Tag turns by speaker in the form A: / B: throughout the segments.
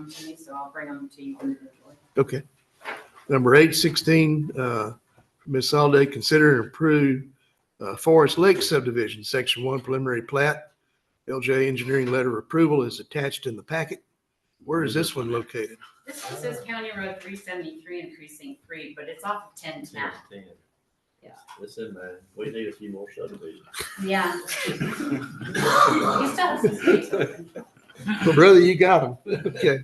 A: them to me, so I'll bring them to you individually.
B: Okay. Number eight sixteen, uh, Ms. Alday, consider and approve, uh, Forest Lake subdivision, section one preliminary plat. LJ engineering letter of approval is attached in the packet. Where is this one located?
A: This one says County Road three seventy-three and precinct three, but it's off of ten ten. Yeah.
C: It's in man. We need a few more subdivisions.
A: Yeah. He still has his face open.
B: Brother, you got them. Okay.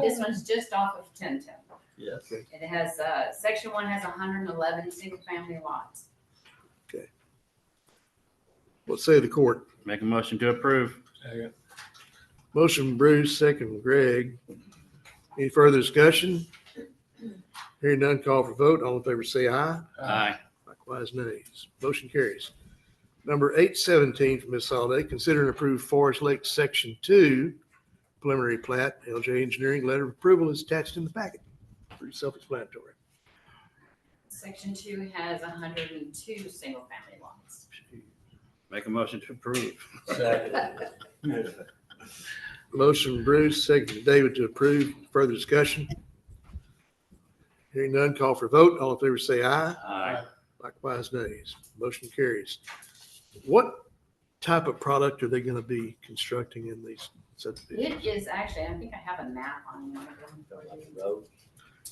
A: This one's just off of ten ten.
C: Yes.
A: It has, uh, section one has hundred and eleven single-family lots.
B: Let's say the court.
D: Make a motion to approve.
B: Motion Bruce, second Greg. Any further discussion? Hearing none, call for vote. All in favor, say aye.
D: Aye.
B: Likewise, nays. Motion carries. Number eight seventeen from Ms. Holiday, consider and approve Forest Lake Section Two preliminary plat. LJ Engineering letter of approval is attached in the packet. Pretty self-explanatory.
A: Section two has hundred and two single-family lots.
D: Make a motion to approve.
B: Motion Bruce, second David to approve. Further discussion? Hearing none, call for vote. All in favor, say aye.
D: Aye.
B: Likewise, nays. Motion carries. What type of product are they going to be constructing in these subdivisions?
A: It is actually, I think I have a map on it.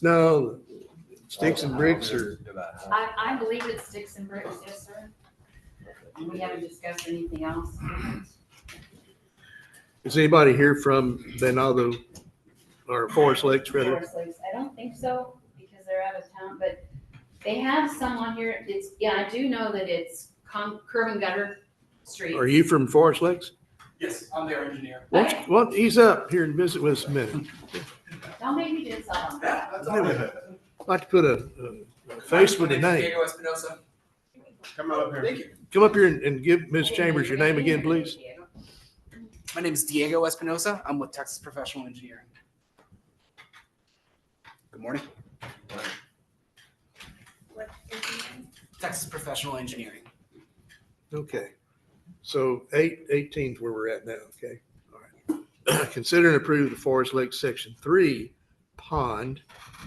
B: No, sticks and bricks are,
A: I, I believe it's sticks and bricks, yes, sir. And we haven't discussed anything else.
B: is anybody here from Benado or Forest Lakes rather?
A: Forest Lakes, I don't think so, because they're out of town, but they have some on here, it's, yeah, I do know that it's con, curb and gutter street.
B: Are you from Forest Lakes?
E: Yes, I'm their engineer.
B: Well, well, ease up here and visit with us a minute.
A: Don't make me do something.
E: That's all.
B: I'd like to put a, a face with a name.
E: Diego Espinosa.
C: Come on up here.
E: Thank you.
B: Come up here and, and give Ms. Chambers your name again, please.
E: My name is Diego Espinosa. I'm with Texas Professional Engineering. Good morning. Texas Professional Engineering.
B: Okay. So eight, eighteen's where we're at now, okay? All right. Consider and approve the Forest Lake Section Three Pond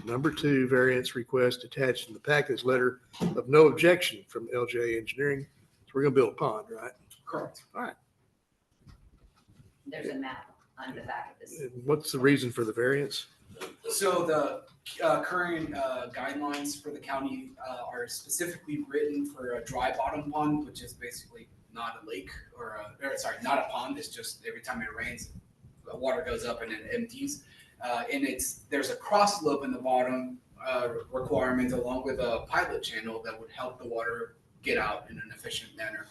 B: Number Two Variance Request attached in the package letter of no objection from LJ Engineering. So we're gonna build a pond, right?
E: Correct.
A: There's a map on the back of this.
B: And What's the reason for the variance?
E: So the uh, current uh, guidelines for the county uh, are specifically written for a dry bottom pond, which is basically not a lake or, a, or sorry, not a pond. It's just every time it rains, the water goes up and it empties. Uh, and it's there's a cross slope in the bottom uh, requirement along with a pilot channel that would help the water get out in an efficient manner.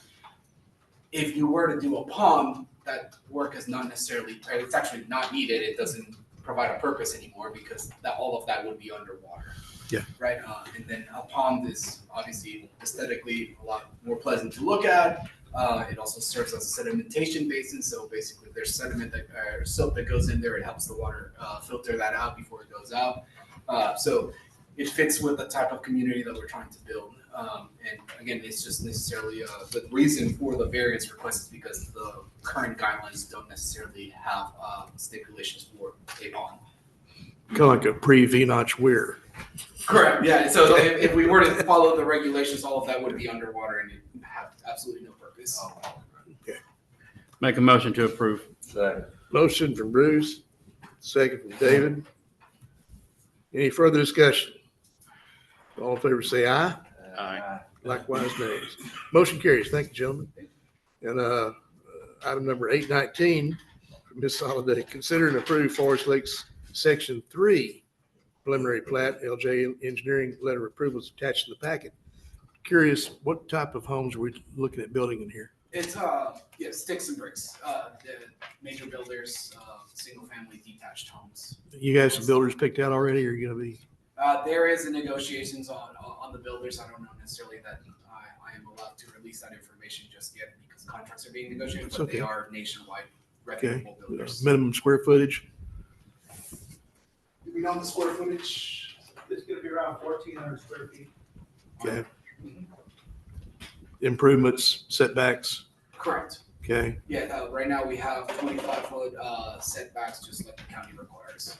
E: If you were to do a pond, that work is not necessarily, or it's actually not needed. It doesn't provide a purpose anymore because that all of that would be underwater.
B: Yeah.
E: Right. Uh, and then a pond is obviously aesthetically a lot more pleasant to look at. Uh, it also serves as a sedimentation basin, so basically there's sediment that or soap that goes in there. It helps the water uh, filter that out before it goes out. Uh, so it fits with the type of community that we're trying to build. Um, and again, it's just necessarily uh, the reason for the variance request is because the current guidelines don't necessarily have uh, stipulations for a bond.
B: Kind of like a pre-V-notch weir.
E: Correct, yeah, so if, if we were to follow the regulations, all of that would be underwater and it'd have absolutely no purpose.
D: Make a motion to approve.
B: Motion from Bruce, second from David. Any further discussion? All in favor, say aye.
D: Aye.
B: Likewise, nays. Motion carries. Thank you, gentlemen. And uh, item number eight nineteen, Ms. Soliday, consider and approve Forest Lakes Section Three preliminary plat, LJ Engineering Letter of Approval is attached to the packet. Curious, what type of homes are we looking at building in here?
E: It's, uh, yeah, sticks and bricks, uh, the major builders, uh, single-family detached homes.
B: You have some builders picked out already, or you gonna be?
E: Uh, there is a negotiations on, on on the builders. I don't know necessarily that uh, I, I am allowed to release that information just yet because contracts are being negotiated,
B: It's
E: but
B: okay.
E: they are nationwide reputable builders.
B: uh, Minimum square footage?
E: Do we know the square footage?
F: It's gonna be around fourteen hundred square feet.
B: Okay. Improvements, setbacks?
E: Correct.
B: Okay,
E: Yeah, uh, right now we have twenty-five foot, uh, setbacks, just like the county requires.